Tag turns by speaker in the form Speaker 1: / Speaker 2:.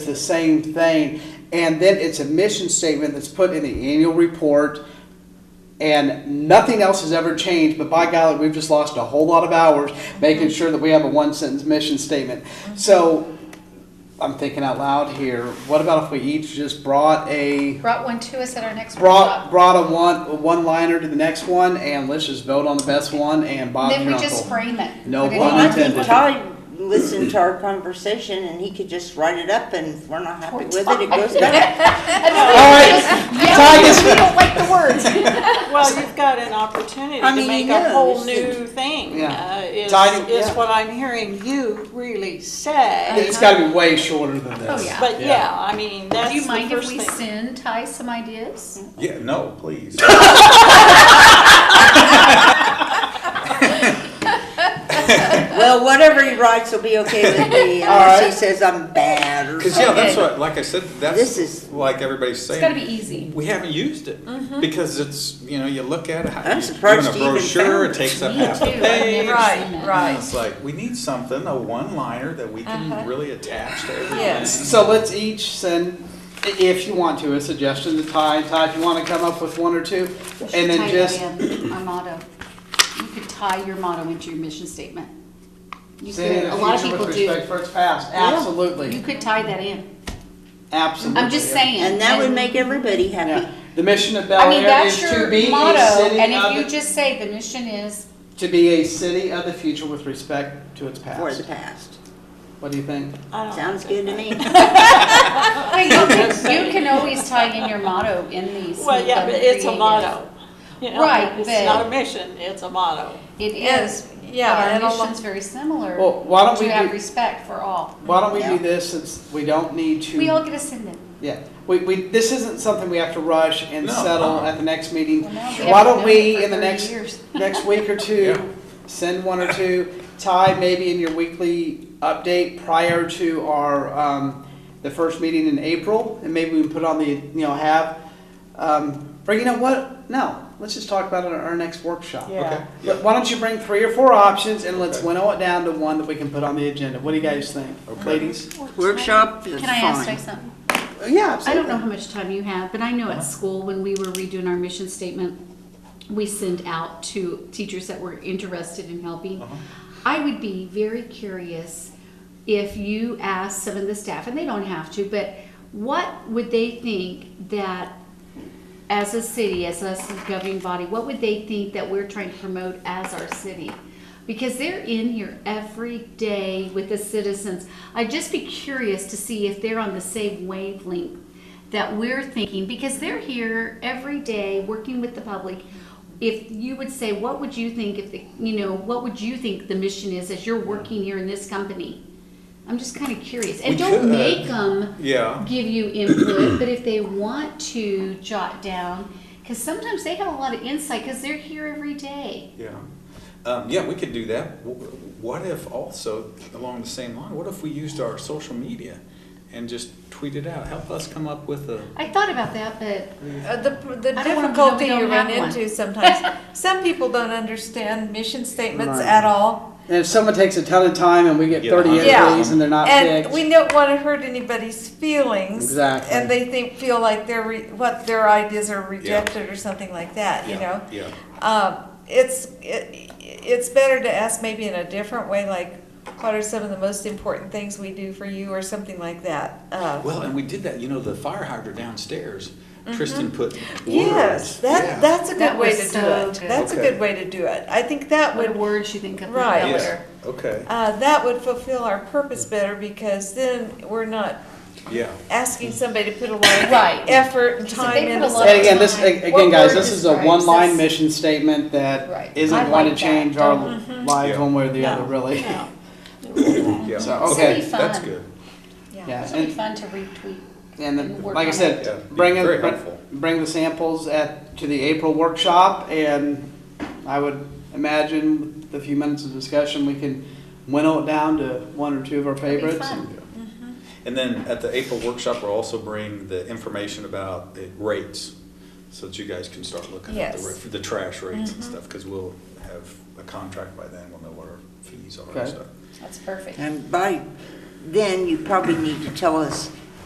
Speaker 1: the same thing. And then it's a mission statement that's put in the annual report, and nothing else has ever changed. But by golly, we've just lost a whole lot of hours making sure that we have a one sentence mission statement. So I'm thinking out loud here. What about if we each just brought a
Speaker 2: Brought one to us at our next
Speaker 1: brought
Speaker 2: workshop.
Speaker 1: brought a one one liner to the next one, and let's just vote on the best one. And Bob,
Speaker 2: Then we
Speaker 1: your
Speaker 2: just
Speaker 1: uncle.
Speaker 2: frame it.
Speaker 1: No
Speaker 2: Put it
Speaker 1: pun
Speaker 2: on.
Speaker 3: Well, I think
Speaker 1: Unintended.
Speaker 3: Todd listened to our conversation and he could just write it up and if we're not happy with it, it goes back.
Speaker 2: And then we
Speaker 1: All right,
Speaker 2: just- yeah,
Speaker 1: Ty
Speaker 2: we
Speaker 1: gets-
Speaker 2: don't like the words.
Speaker 4: Well, you've got an opportunity
Speaker 3: I
Speaker 4: to
Speaker 3: mean,
Speaker 4: make
Speaker 3: yeah,
Speaker 4: a whole
Speaker 3: this is-
Speaker 4: new thing,
Speaker 1: Yeah.
Speaker 4: uh, is,
Speaker 1: Tidy-
Speaker 4: is
Speaker 1: yeah.
Speaker 4: what I'm hearing you really say.
Speaker 1: It's got to be way shorter than this.
Speaker 2: Oh, yeah.
Speaker 4: But
Speaker 5: Yeah.
Speaker 4: yeah, I mean, that's
Speaker 2: Do you mind
Speaker 4: the
Speaker 2: if
Speaker 4: first
Speaker 2: we
Speaker 4: thing.
Speaker 2: send Ty some ideas?
Speaker 5: Yeah, no, please.
Speaker 3: Well, whatever he writes will be okay with me unless he says I'm bad or
Speaker 5: Because
Speaker 3: something.
Speaker 5: yeah, that's what, like I said, that's
Speaker 3: This is-
Speaker 5: like everybody's
Speaker 2: It's
Speaker 5: saying.
Speaker 2: gotta be Mm-hmm. easy.
Speaker 5: we haven't used it because it's you know you look at it. how-
Speaker 3: I'm
Speaker 5: you-
Speaker 3: surprised
Speaker 5: doing
Speaker 3: you
Speaker 5: a
Speaker 3: even
Speaker 5: brochure.
Speaker 3: found
Speaker 5: It takes up
Speaker 2: Me
Speaker 5: half a
Speaker 2: too, I've never
Speaker 5: page.
Speaker 2: seen Right, that. right. Uh-huh.
Speaker 5: And It's like we need something, a one-liner that we can really attach to everything.
Speaker 3: Yes.
Speaker 1: So let's each send, i- if you want to, a suggestion to Ty, and Ty, if you want to come up with one or two, and then just,
Speaker 2: Our motto. You could tie your motto into your mission statement. You
Speaker 1: say
Speaker 2: could,
Speaker 1: in
Speaker 2: a lot
Speaker 1: the
Speaker 2: of
Speaker 1: future
Speaker 2: people
Speaker 1: with
Speaker 2: do.
Speaker 1: respect for its past,
Speaker 2: You
Speaker 1: absolutely,
Speaker 2: could tie that in.
Speaker 1: absolutely.
Speaker 2: I'm just saying.
Speaker 3: And that would make everybody happy.
Speaker 1: Yeah. The mission of
Speaker 2: I
Speaker 1: Bel
Speaker 2: mean,
Speaker 1: Air is
Speaker 2: that's
Speaker 1: to
Speaker 2: your
Speaker 1: be a
Speaker 2: motto, and
Speaker 1: city
Speaker 2: if you
Speaker 1: of, the-
Speaker 2: just say the mission is,
Speaker 1: to be a city of the future with respect to its
Speaker 3: For the
Speaker 1: past.
Speaker 3: past.
Speaker 1: What do you think?
Speaker 4: I don't
Speaker 3: Sounds good to me.
Speaker 2: Well, you can, you can always tie in your motto in these.
Speaker 4: Well, yeah, but it's a
Speaker 2: creative-
Speaker 4: motto. You know,
Speaker 2: Right, but-
Speaker 4: It's not a mission, it's a motto.
Speaker 2: It
Speaker 6: Yes,
Speaker 2: is, but
Speaker 6: yeah,
Speaker 2: our
Speaker 6: and a lo-
Speaker 2: mission's very similar.
Speaker 1: Well, why don't we
Speaker 2: To have
Speaker 1: do-
Speaker 2: respect for all.
Speaker 1: Why don't we do
Speaker 3: Yeah.
Speaker 1: this, since we don't need to.
Speaker 2: We all get ascended.
Speaker 1: Yeah, we, we, this isn't something we have to rush and
Speaker 5: No,
Speaker 1: settle
Speaker 5: uh-uh.
Speaker 1: at the next meeting.
Speaker 2: Well, now we
Speaker 1: Why
Speaker 2: haven't
Speaker 1: don't
Speaker 2: done
Speaker 1: we,
Speaker 2: it
Speaker 1: in the
Speaker 2: for 30
Speaker 1: next,
Speaker 2: years.
Speaker 1: next week or
Speaker 5: Yeah.
Speaker 1: two, send one or two? Ty, maybe in your weekly update prior to our, um, the first meeting in April, and maybe we can put on the, you know, have, um, or you know what? No, let's just talk about it at our next workshop.
Speaker 4: Yeah.
Speaker 5: Okay. Yeah.
Speaker 1: But Why don't you bring three or four options and let's
Speaker 5: Okay.
Speaker 1: winnow it down to one that we can put on the agenda? What do you guys think,
Speaker 5: Okay.
Speaker 1: ladies?
Speaker 3: Workshop is
Speaker 2: Can I ask
Speaker 3: fine.
Speaker 2: Ty something?
Speaker 1: Yeah,
Speaker 2: I don't
Speaker 1: absolutely.
Speaker 2: know how much time you have, but I know at school, when we were redoing our mission statement, we send out to teachers that were interested in helping. I would be very curious if you asked some of the staff, and they don't have to, but what would they think that, as a city, as us as a governing body, what would they think that we're trying to promote as our city? Because they're in here every day with the citizens. I'd just be curious to see if they're on the same wavelength that we're thinking, because they're here every day working with the public. If you would say, what would you think if, the you know, what would you think the mission is as you're working here in this company? I'm just kind of curious.
Speaker 5: We
Speaker 2: And don't
Speaker 5: could. uh,
Speaker 2: make them
Speaker 5: Yeah.
Speaker 2: give you input, but if they want to jot down, because sometimes they have a lot of insight because they're here every day.
Speaker 5: Yeah. Um, yeah, we could do that. W- What if also, along the same line, what if we used our social media and just tweet it out? Help us come up with a.
Speaker 2: I thought about that, but
Speaker 6: Uh, The, the
Speaker 2: I don't wanna know
Speaker 6: difficulty
Speaker 2: we don't
Speaker 6: you run
Speaker 2: have one.
Speaker 6: into sometimes, some people don't understand mission statements
Speaker 1: Right.
Speaker 6: at all.
Speaker 1: And if someone takes a ton of time and we get
Speaker 5: Yeah.
Speaker 1: thirty
Speaker 6: Yeah.
Speaker 1: entries and they're not
Speaker 6: And we
Speaker 1: picked,
Speaker 6: don't want to hurt anybody's feelings.
Speaker 1: Exactly.
Speaker 6: And they think, feel like their, re- what, their ideas are rejected or something like that, you know?
Speaker 5: Yeah.
Speaker 6: Um, It's, it- it's better to ask maybe in a different way, like, what are some of the most important things we do for you or something like that? Uh,
Speaker 5: Well, and we did that. You know, the fire hydrant downstairs. Tristan put.
Speaker 6: Mm-hmm.
Speaker 5: words.
Speaker 6: Yes,
Speaker 5: Yeah.
Speaker 6: that, that's a
Speaker 2: That
Speaker 6: good way
Speaker 2: was
Speaker 6: to do
Speaker 2: so
Speaker 6: it.
Speaker 2: good.
Speaker 6: That's a
Speaker 5: Okay.
Speaker 6: good way to do it. I think that
Speaker 2: what
Speaker 6: would
Speaker 2: words you think of? that
Speaker 6: Right.
Speaker 2: color.
Speaker 5: Yeah. Okay.
Speaker 6: Uh, that would fulfill our purpose better because then we're not
Speaker 5: Yeah.
Speaker 6: asking somebody to put a lot of
Speaker 2: Right.
Speaker 6: effort and
Speaker 2: 'Cause if
Speaker 6: time
Speaker 2: they put
Speaker 6: into
Speaker 2: a lot
Speaker 1: and
Speaker 6: something.
Speaker 1: again, this,
Speaker 2: What
Speaker 1: again, guys,
Speaker 6: word
Speaker 1: this is a
Speaker 6: describes
Speaker 1: one-line
Speaker 6: this?
Speaker 1: mission statement
Speaker 2: Right.
Speaker 1: that
Speaker 2: I
Speaker 1: isn't going to
Speaker 2: like
Speaker 1: change
Speaker 2: that. Mm-hmm.
Speaker 1: our
Speaker 2: Don't-
Speaker 1: lives one way or the
Speaker 4: No.
Speaker 1: other, really.
Speaker 4: No.
Speaker 5: Yeah.
Speaker 1: So,
Speaker 2: This will
Speaker 1: okay,
Speaker 2: be fun.
Speaker 5: That's good.
Speaker 6: Yeah.
Speaker 1: Yeah,
Speaker 2: This will be
Speaker 1: and,
Speaker 2: fun to retweet.
Speaker 1: and
Speaker 2: and
Speaker 1: then,
Speaker 2: work
Speaker 1: like I
Speaker 2: on
Speaker 1: said,
Speaker 5: it. Yeah, be
Speaker 1: bring,
Speaker 5: very
Speaker 1: it- bring-
Speaker 5: helpful.
Speaker 1: bring the samples at, to the April workshop, and I would imagine with a few minutes of discussion, we can winnow it down to one or two of our
Speaker 2: be
Speaker 1: favorites.
Speaker 2: fun.
Speaker 1: and-
Speaker 5: And then at the April workshop, we'll also bring the information about the rates, so that you guys can start looking at the,
Speaker 6: Yes. Mm-hmm.
Speaker 5: ra- for the trash rates and stuff, because we'll have a contract by then, we'll know what our fees are
Speaker 1: Okay.
Speaker 5: and stuff.
Speaker 2: That's perfect.
Speaker 3: And by then, you probably need to tell us